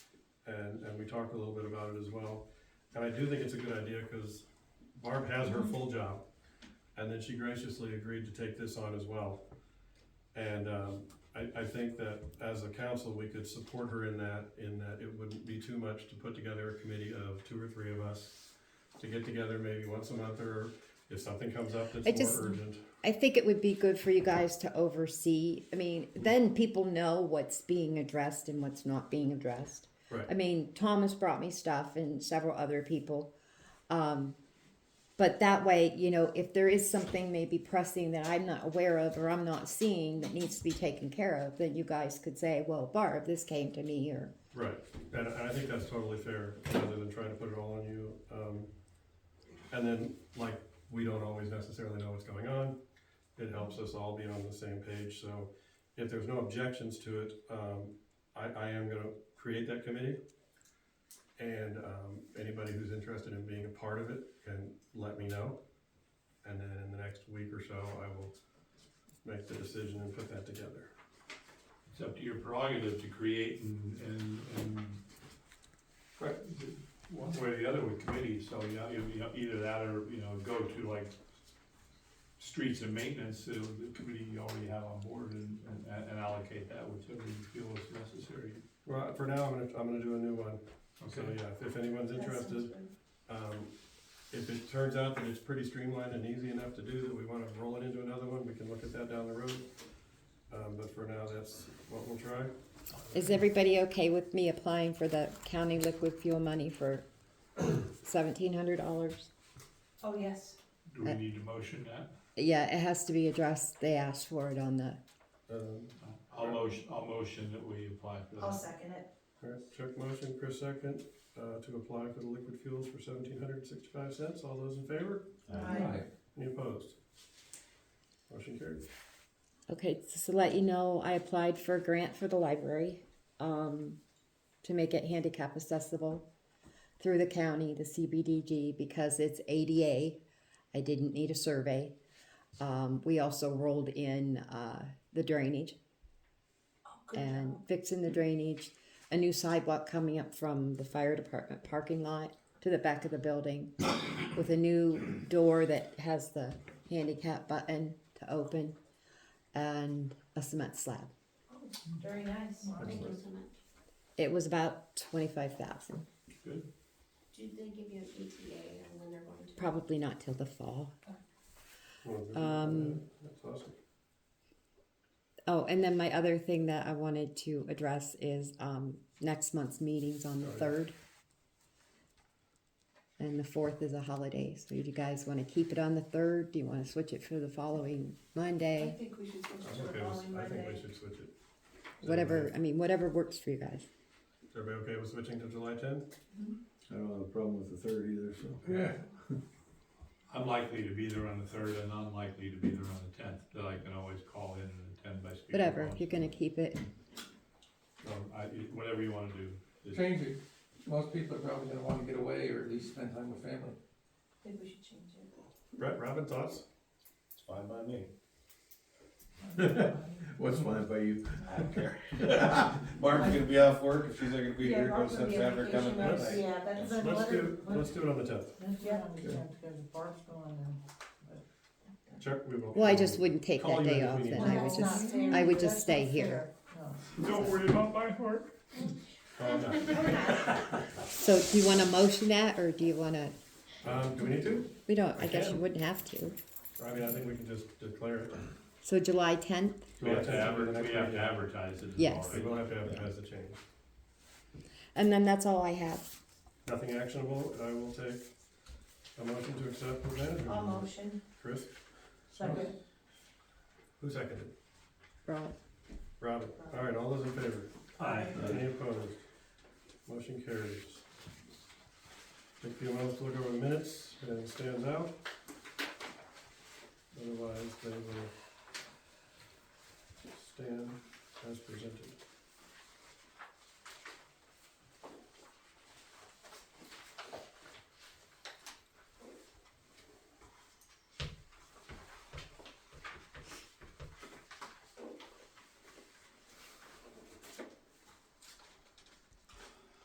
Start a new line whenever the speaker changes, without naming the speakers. and, and we talked a little bit about it as well. And I do think it's a good idea, cause Barb has her full job, and then she graciously agreed to take this on as well. And, um, I, I think that as a council, we could support her in that, in that it wouldn't be too much to put together a committee of two or three of us to get together maybe once a month, or if something comes up
I
that's
just-
more urgent.
I think it would be good for you guys to oversee. I mean, then people know what's being addressed and what's not being addressed.
Right.
I mean, Thomas brought me stuff and several other people. Um, but that way, you know, if there is something maybe pressing that I'm not aware of or I'm not seeing that needs to be taken care of, then you guys could say, well, Barb, this came to me or,
Right, and, and I think that's totally fair, rather than trying to put it all on you. Um, and then, like, we don't always necessarily know what's going on. It helps us all be on the same page, so if there's no objections to it, um, I, I am gonna create that committee. And, um, anybody who's interested in being a part of it can let me know. And then in the next week or so, I will make the decision and put that together.
It's up to your prerogative to create and, and, and, right, one way or the other with committees, so, you know, you know, either that or, you know, go to like streets and maintenance, so the committee you already have on board and, and- and allocate that, whichever you feel is necessary.
Well, for now, I'm gonna, I'm gonna do a new one. So,
Okay,
yeah, if- if anyone's interested, um, if it turns out that it's pretty streamlined and easy enough to do that we wanna roll it into another one, we can look at that down the road. Um, but for now, that's what we'll try.
is everybody okay with me applying for the county liquid fuel money for seventeen hundred dollars?
Oh, yes.
do we need to motion that?
Yeah, it has to be addressed. They asked for it on the,
Um,
I'll motion, I'll motion that we apply for
I'll
that.
second it.
all right, Chuck motion, Chris second, uh, to apply for the liquid fuels for seventeen hundred and sixty-five cents. All those in favor?
Aye.
Any opposed? Motion carried.
okay, just to let you know, I applied for a grant for the library, um, to make it handicap accessible through the county, the CBDG, because it's ADA. I didn't need a survey. Um, we also rolled in, uh, the drainage
Oh, good
and
job.
fixing the drainage, a new sidewalk coming up from the fire department parking lot to the back of the building with a new door that has the handicap button to open and a cement slab.
Very nice.
It was about twenty-five thousand,
Good,
Did they give you an ETA on when they're going to?
probably not till the fall.
Well, good.
Um,
That's awesome.
Oh, and then my other thing that I wanted to address is, um, next month's meeting's on the
Oh, yeah.
third. And the fourth is a holiday, so do you guys wanna keep it on the third? Do you wanna switch it for the following
I
Monday?
think we should switch
I'm
to the
okay
following
with, I think we
Monday.
should switch it. Is
Whatever, I mean, whatever works for you guys.
everybody okay with switching to July tenth?
Mm-hmm.
I don't have a problem with the third either, so.
Yeah.
I'm likely to be there on the third and unlikely to be there on the tenth, but I can always call in and attend by speakerphone.
Whatever, if you're gonna keep it,
Um, I, it- whatever you wanna do. Just-
Change it. Most people are probably gonna wanna get away or at least spend time with family.
I think we should change it.
Brett, Robin, thoughts?
It's fine by me.
What's fine by you?
I don't care. Barb's gonna be off work, if she's not gonna be
Yeah,
here, go
Barb's gonna
steps
be on
after coming
vacation
back.
next- Yeah, that's a
Let's do,
letter.
let's do it on the tenth.
Yeah.
Chuck, we will.
well, I just wouldn't take
Call
that
you
day
if
off
we need
then,
to.
I would
Well, that's
just,
not fair.
I would
That's
just stay
not
here.
Don't worry about my work.
Oh, no.
So do you wanna motion that, or do you wanna,
Um, do we need to?
we don't,
I
I guess you
can.
wouldn't have to.
I mean, I think we can just declare it.
So July tenth?
We have to
July 10th will be the
adver-
next
we have to
meeting.
advertise it. as
Yes.
well,
We
right?
will have to advertise the change.
And then that's all I have.
Nothing actionable, I will take a motion to accept the manager.
I'll motion.
Chris,
Second.
who seconded?
Right.
Robin. All right, all those in favor?
Aye.
Any opposed? Motion carries. Take a few moments to look over the minutes and stands out. Otherwise, they will stand as presented.